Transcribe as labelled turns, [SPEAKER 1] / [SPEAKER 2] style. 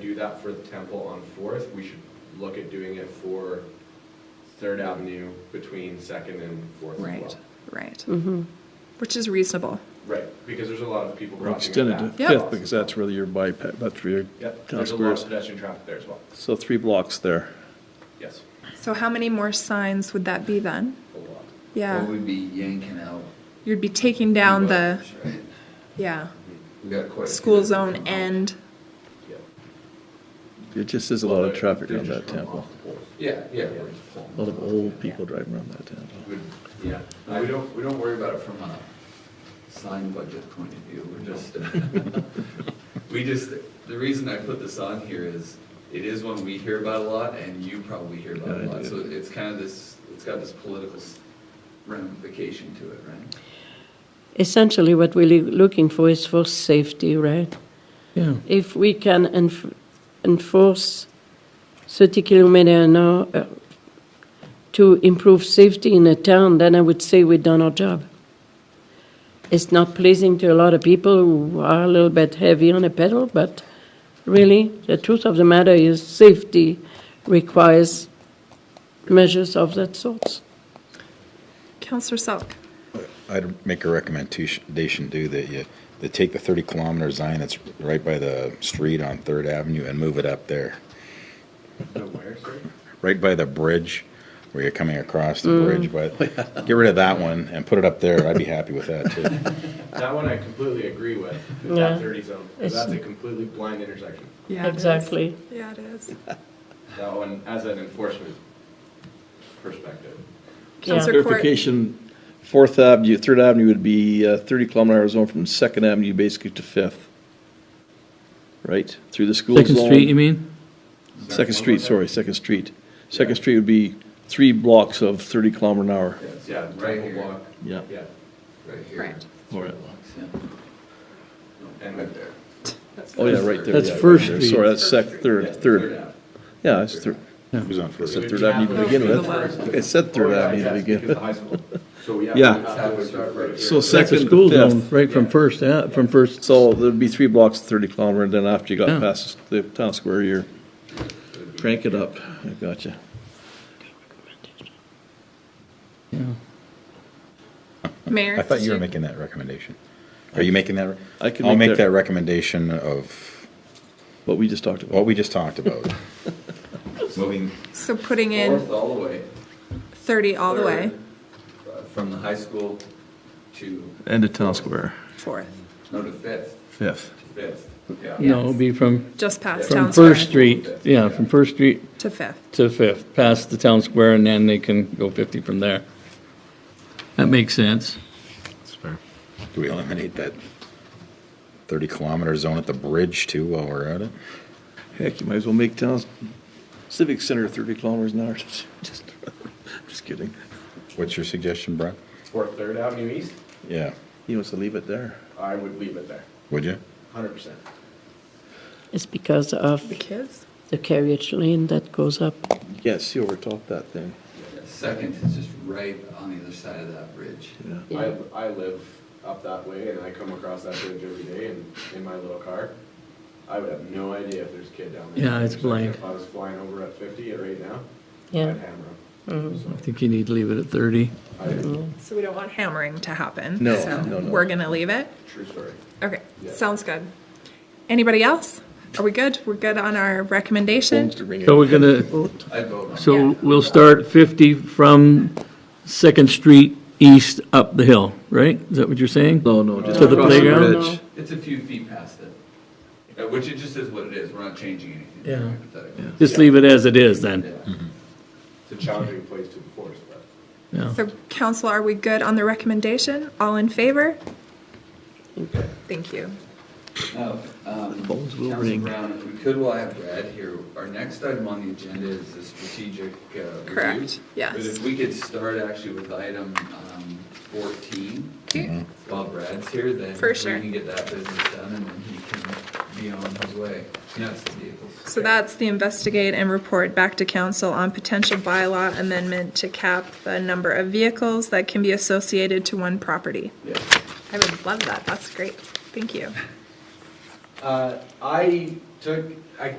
[SPEAKER 1] do that for the temple on Fourth, we should look at doing it for Third Avenue between Second and Fourth as well.
[SPEAKER 2] Right, right. Which is reasonable.
[SPEAKER 1] Right, because there's a lot of people
[SPEAKER 3] Or
[SPEAKER 1] crossing.
[SPEAKER 3] extend it
[SPEAKER 1] that
[SPEAKER 3] to
[SPEAKER 1] path.
[SPEAKER 2] Yep.
[SPEAKER 3] Fifth, because that's really your bypass, that's where your
[SPEAKER 1] Yep,
[SPEAKER 3] town
[SPEAKER 1] there's a lot of
[SPEAKER 3] squares.
[SPEAKER 1] pedestrian traffic there as well,
[SPEAKER 3] So three blocks there.
[SPEAKER 1] yes,
[SPEAKER 2] So how many more signs would that be then?
[SPEAKER 1] a lot.
[SPEAKER 2] Yeah,
[SPEAKER 4] What we'd be yanking out.
[SPEAKER 2] you'd be taking down the,
[SPEAKER 4] buffers, right?
[SPEAKER 2] yeah,
[SPEAKER 4] We got quite. a few
[SPEAKER 2] school
[SPEAKER 4] that
[SPEAKER 2] zone
[SPEAKER 4] come out.
[SPEAKER 2] end.
[SPEAKER 1] Yep.
[SPEAKER 3] There just is a lot of
[SPEAKER 1] Well,
[SPEAKER 3] traffic
[SPEAKER 4] They're
[SPEAKER 3] around
[SPEAKER 4] just
[SPEAKER 3] that
[SPEAKER 4] coming
[SPEAKER 3] temple.
[SPEAKER 4] off the poles.
[SPEAKER 1] Yeah, yeah,
[SPEAKER 4] They're
[SPEAKER 1] yeah.
[SPEAKER 4] just pulling
[SPEAKER 3] A lot of
[SPEAKER 4] them
[SPEAKER 3] old people driving around that temple.
[SPEAKER 1] Would- Yeah,
[SPEAKER 4] out. We don't, we don't worry about it from a sign budget point of view, we're just, uh, we just, the reason I put this on here is, it is one we hear about a lot, and you probably hear about a
[SPEAKER 3] Yeah, I
[SPEAKER 4] lot,
[SPEAKER 3] do.
[SPEAKER 4] so it's kind of this, it's got this political s- ramification to it, right?
[SPEAKER 5] Essentially, what we're loo- looking for is for safety, right?
[SPEAKER 3] Yeah.
[SPEAKER 5] If we can enf- enforce 30 kilometer an hour uh, to improve safety in a town, then I would say we've done our job. It's not pleasing to a lot of people who are a little bit heavy on the pedal, but really, the truth of the matter is safety requires measures of that sort.
[SPEAKER 2] Counselor Selk,
[SPEAKER 6] I'd make a recommendation do that you, they take the thirty kilometer sign that's right by the street on Third Avenue and move it up there.
[SPEAKER 1] where, sir?
[SPEAKER 6] Right by the bridge where you're coming across the bridge, but get rid of that one and put it up there. I'd be happy with that too.
[SPEAKER 1] That one I completely agree with,
[SPEAKER 5] Yeah.
[SPEAKER 1] that thirty zone, 'cause
[SPEAKER 5] It's-
[SPEAKER 1] that's a completely blind intersection.
[SPEAKER 2] yeah. it is.
[SPEAKER 5] Exactly.
[SPEAKER 2] Yeah, it is.
[SPEAKER 1] That one, as an enforcement perspective.
[SPEAKER 5] Yeah.
[SPEAKER 2] Counselor Court,
[SPEAKER 3] Clarification, Fourth Avenue, Third Avenue would be uh, thirty kilometer hour zone from Second Avenue basically to Fifth. Right, through the school zone.
[SPEAKER 7] Second Street, you mean?
[SPEAKER 3] Second Street, sorry, Second Street. Second Street would be three blocks of thirty kilometer an hour.
[SPEAKER 1] Yeah,
[SPEAKER 4] Right
[SPEAKER 1] right
[SPEAKER 4] here,
[SPEAKER 1] block,
[SPEAKER 3] Yeah.
[SPEAKER 1] yeah,
[SPEAKER 4] right here.
[SPEAKER 2] Right.
[SPEAKER 3] Or-
[SPEAKER 4] And
[SPEAKER 1] and
[SPEAKER 4] right there.
[SPEAKER 3] Oh, yeah, right there.
[SPEAKER 7] That's
[SPEAKER 3] yeah, right
[SPEAKER 7] First
[SPEAKER 3] there.
[SPEAKER 7] Street.
[SPEAKER 3] Sorry, that's sec, third, third.
[SPEAKER 1] Ave.
[SPEAKER 3] Yeah, it's third.
[SPEAKER 6] Who's on
[SPEAKER 3] It's
[SPEAKER 6] first?
[SPEAKER 3] a third avenue to begin with. I think I said
[SPEAKER 1] Oh,
[SPEAKER 3] third
[SPEAKER 1] yeah,
[SPEAKER 3] avenue to
[SPEAKER 1] yes,
[SPEAKER 3] begin
[SPEAKER 1] because
[SPEAKER 3] with.
[SPEAKER 1] the high school. So we
[SPEAKER 3] Yeah.
[SPEAKER 1] absolutely have to start right here.
[SPEAKER 3] So
[SPEAKER 7] That's a
[SPEAKER 3] second,
[SPEAKER 7] school zone,
[SPEAKER 3] fifth.
[SPEAKER 7] right from first, uh, from first.
[SPEAKER 3] So there'd be three blocks, thirty kilometer, and then after you got
[SPEAKER 7] Yeah.
[SPEAKER 3] past the town square, you're crank it up. I gotcha.
[SPEAKER 2] Mayor.
[SPEAKER 6] I thought
[SPEAKER 2] did
[SPEAKER 6] you were making that recommendation. Are you making that?
[SPEAKER 3] I can
[SPEAKER 6] I'll
[SPEAKER 3] make
[SPEAKER 6] make
[SPEAKER 3] that-
[SPEAKER 6] that recommendation of
[SPEAKER 3] What we just talked about.
[SPEAKER 6] what we just talked about. Moving
[SPEAKER 2] So putting
[SPEAKER 4] Fourth
[SPEAKER 2] in
[SPEAKER 4] all the way.
[SPEAKER 2] thirty all the way,
[SPEAKER 4] Third, uh, From the high school to,
[SPEAKER 3] And the town square,
[SPEAKER 2] fourth,
[SPEAKER 4] no, to Fifth,
[SPEAKER 3] fifth.
[SPEAKER 4] to Fifth, yeah.
[SPEAKER 7] No, it'd be from,
[SPEAKER 2] just past
[SPEAKER 7] from
[SPEAKER 2] Town
[SPEAKER 7] First
[SPEAKER 2] Square
[SPEAKER 7] Street, yeah, from First Street
[SPEAKER 2] to Fifth.
[SPEAKER 7] to Fifth, past the town square, and then they can go 50 from there. That makes sense.
[SPEAKER 6] Do we eliminate that 30 kilometer zone at the bridge too while we're at it?
[SPEAKER 3] Heck, you might as well make town civic center thirty kilometers an hour. Just, just kidding.
[SPEAKER 6] What's your suggestion, Brad?
[SPEAKER 1] For Third Avenue East,
[SPEAKER 6] Yeah,
[SPEAKER 3] He wants to leave it there.
[SPEAKER 1] I would leave it there,
[SPEAKER 6] would you?
[SPEAKER 1] hundred percent.
[SPEAKER 5] It's because of
[SPEAKER 2] The kids?
[SPEAKER 5] the carriage lane that goes up.
[SPEAKER 3] You can't see over top that thing.
[SPEAKER 4] Second is just right on the other side of that bridge.
[SPEAKER 3] Yeah.
[SPEAKER 1] I, I live up that way and I come across that bridge every day and in my little car. I would have no idea if there's a kid down there.
[SPEAKER 7] Yeah, it's blind.
[SPEAKER 1] If I was flying over at fifty right now, I'd
[SPEAKER 5] Yeah.
[SPEAKER 1] hammer him. So,
[SPEAKER 7] I think you need to leave it at 30.
[SPEAKER 1] I,
[SPEAKER 2] So we don't want hammering to happen.
[SPEAKER 3] No,
[SPEAKER 2] so
[SPEAKER 3] no, no.
[SPEAKER 2] We're gonna leave it?
[SPEAKER 1] true story.
[SPEAKER 2] Okay,
[SPEAKER 1] Yeah.
[SPEAKER 2] sounds good. Anybody else? Are we good? We're good on our recommendation?
[SPEAKER 3] To ring it.
[SPEAKER 7] So we're gonna,
[SPEAKER 4] I'd vote on
[SPEAKER 7] so we'll start 50 from Second Street east up the hill, right? Is that what you're saying?
[SPEAKER 3] No, no, just
[SPEAKER 7] To the
[SPEAKER 3] across
[SPEAKER 7] playground?
[SPEAKER 3] bridge.
[SPEAKER 4] it. It's a few feet past it, Uh, which it just is what it is, we're not changing anything.
[SPEAKER 7] Yeah.
[SPEAKER 4] Hypothetically.
[SPEAKER 7] Just leave it as it is then.
[SPEAKER 4] Yeah.
[SPEAKER 1] It's a challenging place to enforce, but.
[SPEAKER 7] Yeah.
[SPEAKER 2] So council, are we good on the recommendation? All in favor? Thank you.
[SPEAKER 4] Now, um,
[SPEAKER 3] Phones will
[SPEAKER 4] Council
[SPEAKER 3] ring.
[SPEAKER 4] Brown, if we could, while I have Brad here, our next item on the agenda is the strategic uh, review.
[SPEAKER 2] Correct, yes.
[SPEAKER 4] But if we could start actually with item um, 14,
[SPEAKER 2] Okay,
[SPEAKER 3] Mm-hmm.
[SPEAKER 4] while Brad's here, then
[SPEAKER 2] For sure.
[SPEAKER 4] we can get that business done, and then he can be on his way. Yes, the vehicles.
[SPEAKER 2] so that's the investigate and report back to council on potential bylaw amendment to cap the number of vehicles that can be associated to one property.
[SPEAKER 4] Yeah.
[SPEAKER 2] I would love that. That's great. Thank you.
[SPEAKER 1] Uh, I took, I